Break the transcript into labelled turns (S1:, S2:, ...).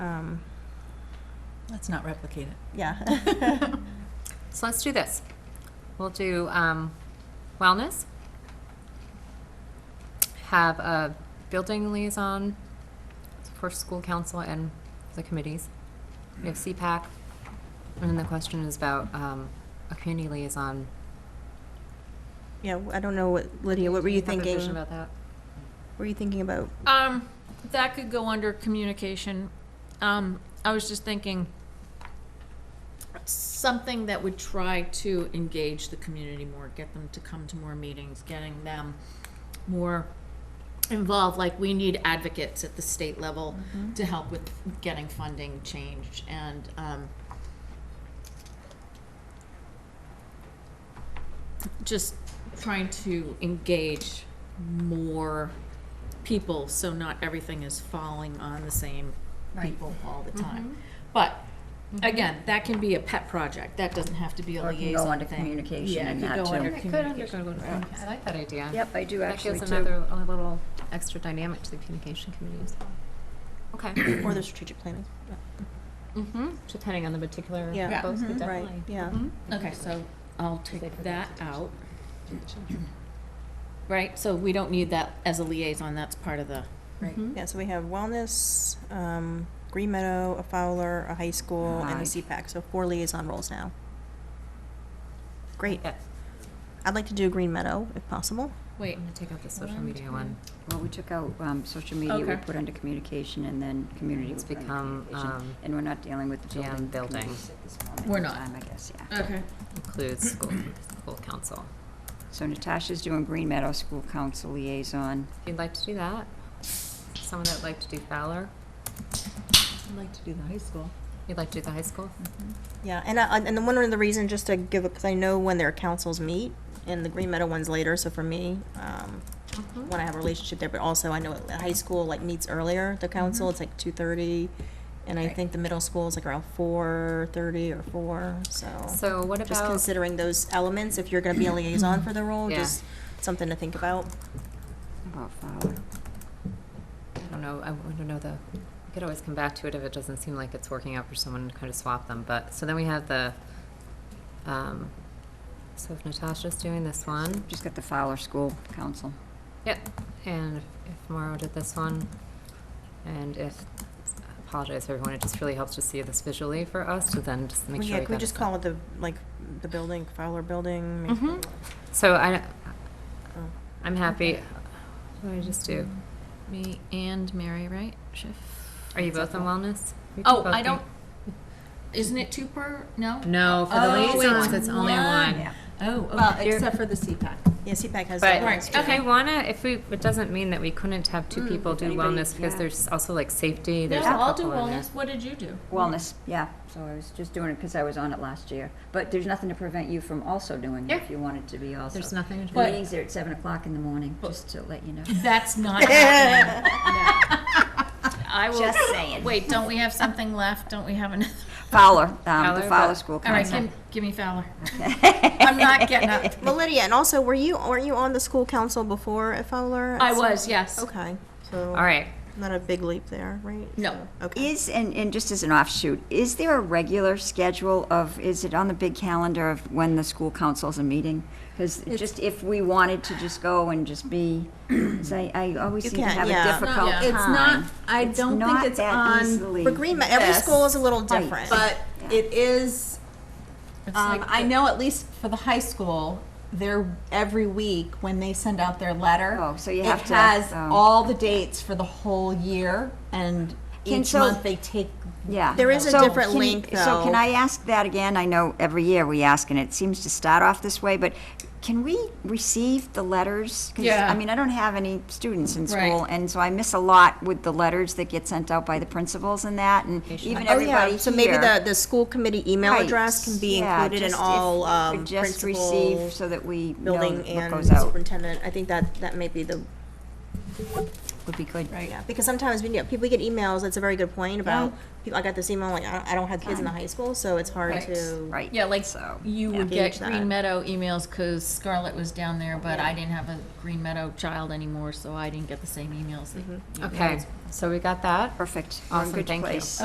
S1: um,
S2: Let's not replicate it. Mm-hmm.
S1: Yeah.
S3: So let's do this. We'll do um, wellness. Have a building liaison for school council and the committees. We have CPAC. And then the question is about um, a community liaison.
S1: Yeah, I don't know what, Lydia, what were
S3: Do
S1: you
S3: have a
S1: thinking?
S3: vision about that?
S1: Were you thinking about,
S4: Um, that could go under communication. Um, I was just thinking something that would try to engage the community more, get them to come to more meetings, getting them more involved. Like we need advocates at the state level to help with getting funding changed and, um, just trying to engage more people, so not everything is falling on the same people all
S3: Mm-hmm.
S4: the time. But, again, that can be a pet project, that doesn't have to be a
S5: Or it can go
S4: liaison
S5: under
S4: thing.
S5: communication
S4: Yeah, it
S5: and
S4: could
S5: that
S4: go
S5: too.
S4: under
S5: Yeah,
S3: It could under
S4: communication.
S3: I like that idea.
S5: Yep, I do
S3: That
S5: actually
S3: gives
S5: too.
S3: another, a little extra dynamic to the communication committee as well. Okay.
S1: or the strategic planning?
S3: Mm-hmm. Depending on the particular
S1: Yeah. Yeah.
S3: folks,
S4: Mhm.
S3: but
S4: Right.
S3: definitely.
S1: Yeah.
S3: Mhm.
S4: Okay, so I'll take that out. Right, so we don't need that as a liaison, that's part of the,
S5: Mm-hmm.
S3: Mhm.
S1: Yeah, so we have wellness, um, Green Meadow, a Fowler, a high school, and a
S5: Right.
S1: CPAC, so four liaison roles now. Great.
S3: Yeah.
S1: I'd like to do Green Meadow if possible.
S4: wait,
S3: I'm gonna take out the social
S4: One,
S3: media
S4: two,
S3: one.
S5: Well, we took out, um, social media, we
S4: Okay.
S5: put under communication and then community.
S3: It's
S5: we put under
S3: become,
S5: communication.
S3: um,
S5: And we're not dealing with the
S3: jam
S5: building.
S3: building.
S5: committees at this moment
S4: We're
S5: in
S4: not. Uh,
S5: Time, I guess, yeah.
S4: okay.
S3: includes school, school council.
S5: So Natasha's doing Green Meadow School Council Liaison.
S3: If you'd like to do that, someone that would like to do Fowler,
S2: I'd like to do the high school.
S3: you'd like to do the high school?
S1: Yeah, and I, and then one of the reasons, just to give, because I know when their councils meet, and the Green Meadow one's later, so for me, um,
S2: Uh-huh.
S3: Hmm?
S1: when I have a relationship there, but also I know at high school like meets earlier, the council, it's like two thirty. And I
S3: Mm-hmm. Right.
S1: think the middle school is like around four thirty or four, so.
S3: So what
S1: Just
S3: about,
S1: considering those elements, if you're gonna be a liaison for the role,
S3: Yeah.
S1: just something to think about.
S5: About Fowler.
S3: I don't know, I want to know the, we could always come back to it if it doesn't seem like it's working out for someone to kind of swap them, but, so then we have the, um, so if Natasha's doing this one,
S5: Just got the Fowler School Council.
S3: yep, and if Mauro did this one, and if, I apologize for everyone, it just really helps to see this visually for us to then just make
S1: Well,
S3: sure.
S1: Yeah, can we
S3: got
S1: just
S3: it.
S1: call it the, like, the building, Fowler Building? maybe?
S3: Mhm. So I,
S1: Oh.
S3: I'm happy, what did I just do?
S4: Me and Mary, right? Schiff?
S3: Are you both on wellness? We
S4: Oh,
S3: could both
S4: I
S3: be-
S4: don't, isn't it two per, no?
S3: No, for the
S4: Oh, it's
S3: liaisons, it's only
S4: one.
S3: one.
S4: Oh,
S2: Well,
S4: okay.
S2: except for the CPAC.
S1: Yeah, CPAC has
S3: But
S1: that
S4: Right,
S1: one.
S3: if
S4: okay. Mm,
S3: we wanna, if we, it doesn't mean that we couldn't have two people do
S5: anybody-
S3: wellness, because
S5: yeah.
S3: there's also like safety,
S4: No,
S3: there's a
S4: I'll do
S3: couple in there.
S4: wellness, what did you do?
S5: Wellness, yeah. So I was just doing it because I was on it last year. But there's nothing to prevent you from also doing it if you wanted to be also.
S3: There's nothing.
S5: The meetings are at seven o'clock in the morning,
S4: But-
S5: just to let you know.
S4: That's not happening. I will.
S5: Just saying.
S4: Wait, don't we have something left? Don't we have another?
S5: Fowler, um,
S3: Fowler,
S5: the
S3: but-
S5: Fowler School
S4: All right,
S5: Council.
S4: give, give me Fowler. I'm not getting up.
S1: Well, Lydia, and also, were you, weren't you on the school council before at Fowler?
S4: I was, yes.
S1: Okay, so.
S3: All right,
S1: Not a big leap there, right?
S4: No.
S1: So, Okay.
S5: Is, and, and just as an offshoot, is there a regular schedule of, is it on the big calendar of when the school councils are meeting? Because just if we wanted to just go and just be, 'cause I, I always
S1: You
S5: seem to
S1: can,
S5: have a
S1: yeah. It's
S5: difficult time.
S6: It's not, I
S5: It's
S6: don't think
S5: not
S6: it's
S5: that
S6: on,
S5: easily-
S1: For Green, Ma- every
S6: Yes.
S1: school is a little
S5: Right.
S1: different.
S6: but it is,
S4: It's
S6: um,
S4: like
S6: I
S4: the-
S6: know at least for the high school, they're, every week when they send out their letter.
S5: Oh, so you have to-
S6: It has
S5: oh.
S6: all the dates for the whole year and
S5: Can-
S6: each
S5: so-
S6: month they take.
S5: Yeah.
S1: There is a
S5: So
S1: different
S5: can-
S1: link,
S5: So can
S1: though.
S5: I ask that again? I know every year we ask, and it seems to start off this way, but can we receive the letters? 'Cause,
S4: Yeah.
S5: I mean, I don't have any students in
S4: Right.
S5: school, and so I miss a lot with the letters that get sent out by the principals and that, and even everybody here.
S1: So maybe the, the school committee email
S5: Right.
S1: address can be
S5: Yeah,
S1: included in
S5: just if
S1: all,
S5: we
S1: um,
S5: could Just receive,
S1: principal,
S5: so that we know
S1: building
S5: what
S1: and
S5: goes out,
S1: superintendent. I think that, that may be the
S5: would be good.
S4: Right.
S1: Yeah, because sometimes when you, people get emails. That's a very good point about. People, I got this email like I don't, I don't have kids in the high school, so it's hard
S4: Right.
S1: to.
S5: Right.
S4: Yeah, like
S5: So,
S4: you
S5: yeah.
S4: would get
S1: Gauge that.
S4: Green Meadow emails because Scarlett was down there, but I didn't have a Green Meadow child anymore, so I didn't get the same emails that you
S5: Mm-hmm.
S3: okay, so we got that.
S5: Perfect. We're in
S3: Awesome,
S5: good
S3: thank you.
S5: place.